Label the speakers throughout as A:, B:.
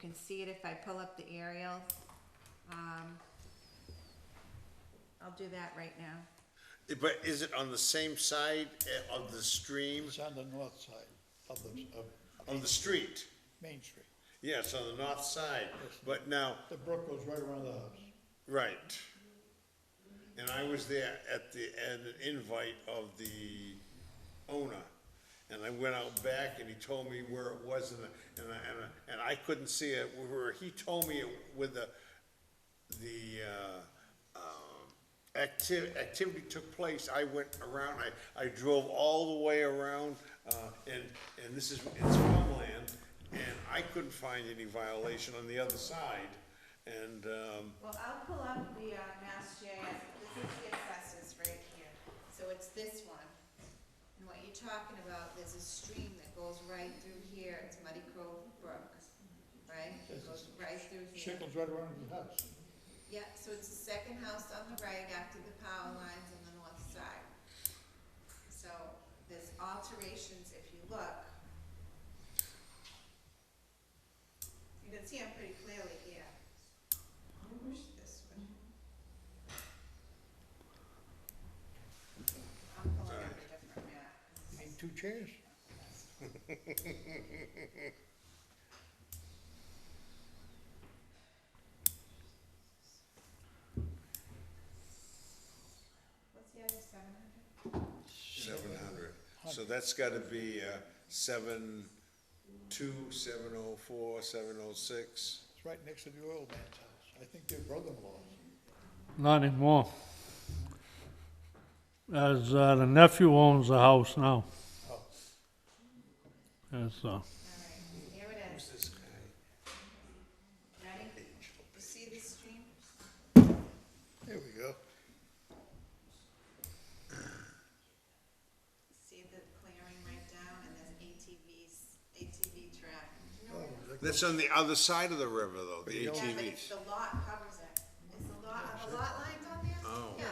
A: can see it if I pull up the aerial. Um, I'll do that right now.
B: But is it on the same side eh, of the stream,
C: It's on the north side of the, of
B: on the street?
C: Main Street.
B: Yes, on the north side, but now,
C: The brook goes right around the house.
B: right. And I was there at the, at an invite of the owner, and I went out back and he told me where it was and, I- and I, and I, and I couldn't see it, where, he told me it with the, the, uh, um, acti- activity took place, I went around, I, I drove all the way around, uh, and, and this is, it's farmland, and I couldn't find any violation on the other side, and, um,
D: Well, I'll pull up the, uh, Mass GIS, this is the assessors right here, so it's this one. And what you're talking about, there's a stream that goes right through here, it's Muddy Cove Brook, right? It goes right through here.
C: Shit goes right around the house.
D: Yeah, so it's the second house on the right after the power lines on the north side. So there's alterations if you look. You can see them pretty clearly here. Push this one. I'm pulling up a different map.
C: Need two chairs.
D: What's the other seven hundred?
B: seven hundred. So that's gotta be, uh, seven, two, seven oh four, seven oh six.
C: It's right next to the oil man's house. I think they're brother-in-law's.
E: Not anymore. As uh, the nephew owns the house now. That's uh,
D: All right, here it is.
B: This guy,
D: Ready? You see the stream?
C: There we go.
D: See the clearing right down and there's ATVs, ATV track.
C: Oh.
B: That's on the other side of the river though, the
D: Yeah,
C: Yeah,
D: but if
B: ATVs.
D: the lot covers it, is the lot, are the lot lines on there?
B: Oh.
D: Yeah.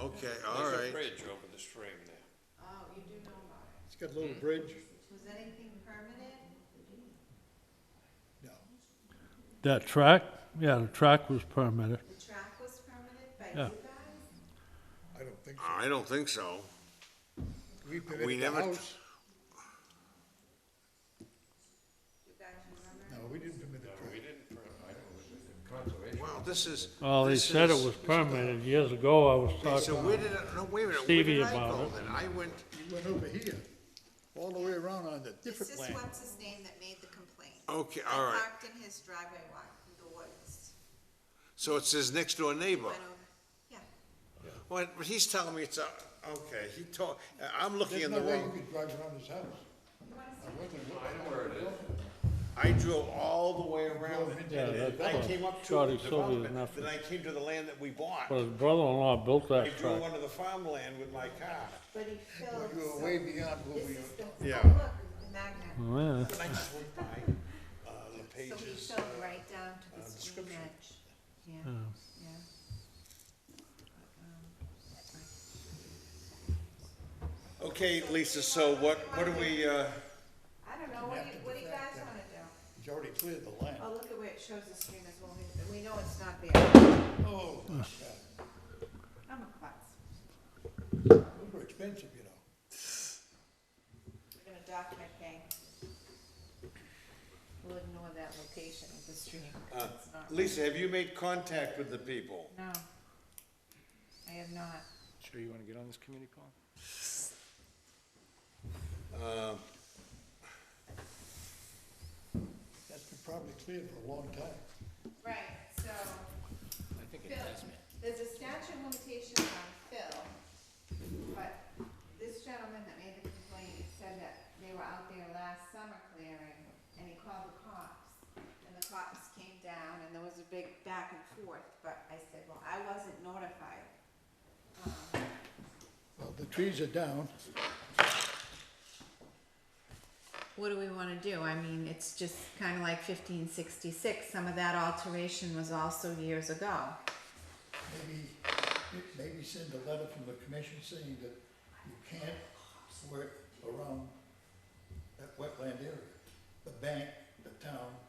B: Okay, all right.
F: bridge over the stream there.
D: Oh, you do know about it.
C: It's got a
B: Hmm.
C: little bridge.
D: Was anything permitted?
C: No.
E: that track, yeah, the track was permitted.
D: The track was permitted by
E: Yeah.
D: you guys?
C: I don't think so.
B: I don't think so. We
C: We permitted the
B: never-
C: house.
D: You guys remember?
C: No, we didn't permit the track.
B: Wow, this is.
E: Well, they
B: this
E: said it
B: is-
E: was permitted years ago, I was
B: Okay, So
E: talking.
B: where did, I- no, wait a minute, where
E: Stevie
B: did I
E: about
B: go
E: it.
B: then? I went,
C: We went over here, all the way around on the
D: It's
C: different
D: just
C: land.
D: what's his name that made the complaint.
B: okay, all right.
D: Parked in his driveway walk through the woods.
B: So it's his next door neighbor.
D: Went over, yeah.
B: Well, but he's telling me it's, a- okay, he told, I'm looking
C: There's
B: in
C: no
B: the
C: way you
B: wrong.
C: could drive around his house. I wasn't looking.
B: I drove all the way around it.
E: Yeah,
B: and
E: that's
B: I
E: what
B: came up to
E: Scotty
B: the
E: Sylvia's
B: development,
E: nephew.
B: then I came to the land that we bought.
E: But his brother-in-law built
B: I
E: that
B: drove
E: track.
B: onto the farmland with my car.
D: But he filled,
C: You were
D: so
C: way beyond what
D: this
C: we,
D: is the, oh,
B: Yeah.
D: look, the magnet.
E: Yeah.
B: And I just went by, uh, the
D: So he
B: pages. uh,
D: filled right down to the stream edge. Yeah, yeah.
B: Okay, Lisa, so what, what do we, uh,
D: I don't know, what do you, what do you guys wanna do?
C: he's already cleared the land.
D: Oh, look at where it shows the stream as well, we know it's not there.
C: Oh, my God.
D: I'm a klutz.
C: Those were expensive, you know.
D: We're gonna dock my pay. We'll ignore that location of the stream.
B: uh,
D: It's not-
B: Lisa, have you made contact with the people?
D: No. I have not.
F: Sure you wanna get on this committee call?
C: That's been probably cleared for a long time.
D: Right, so,
F: I think
D: Phil, there's a statute of limitations on Phil, but this gentleman that made the complaint said that they were out there last summer clearing, and he called the cops. And the cops came down, and there was a big back and forth, but I said, well, I wasn't notified. Um,
C: Well, the trees are down.
A: What do we wanna do? I mean, it's just kinda like fifteen sixty-six, some of that alteration was also years ago.
C: Maybe, maybe send a letter from the commission saying that you can't work around that wetland area. The bank, the town,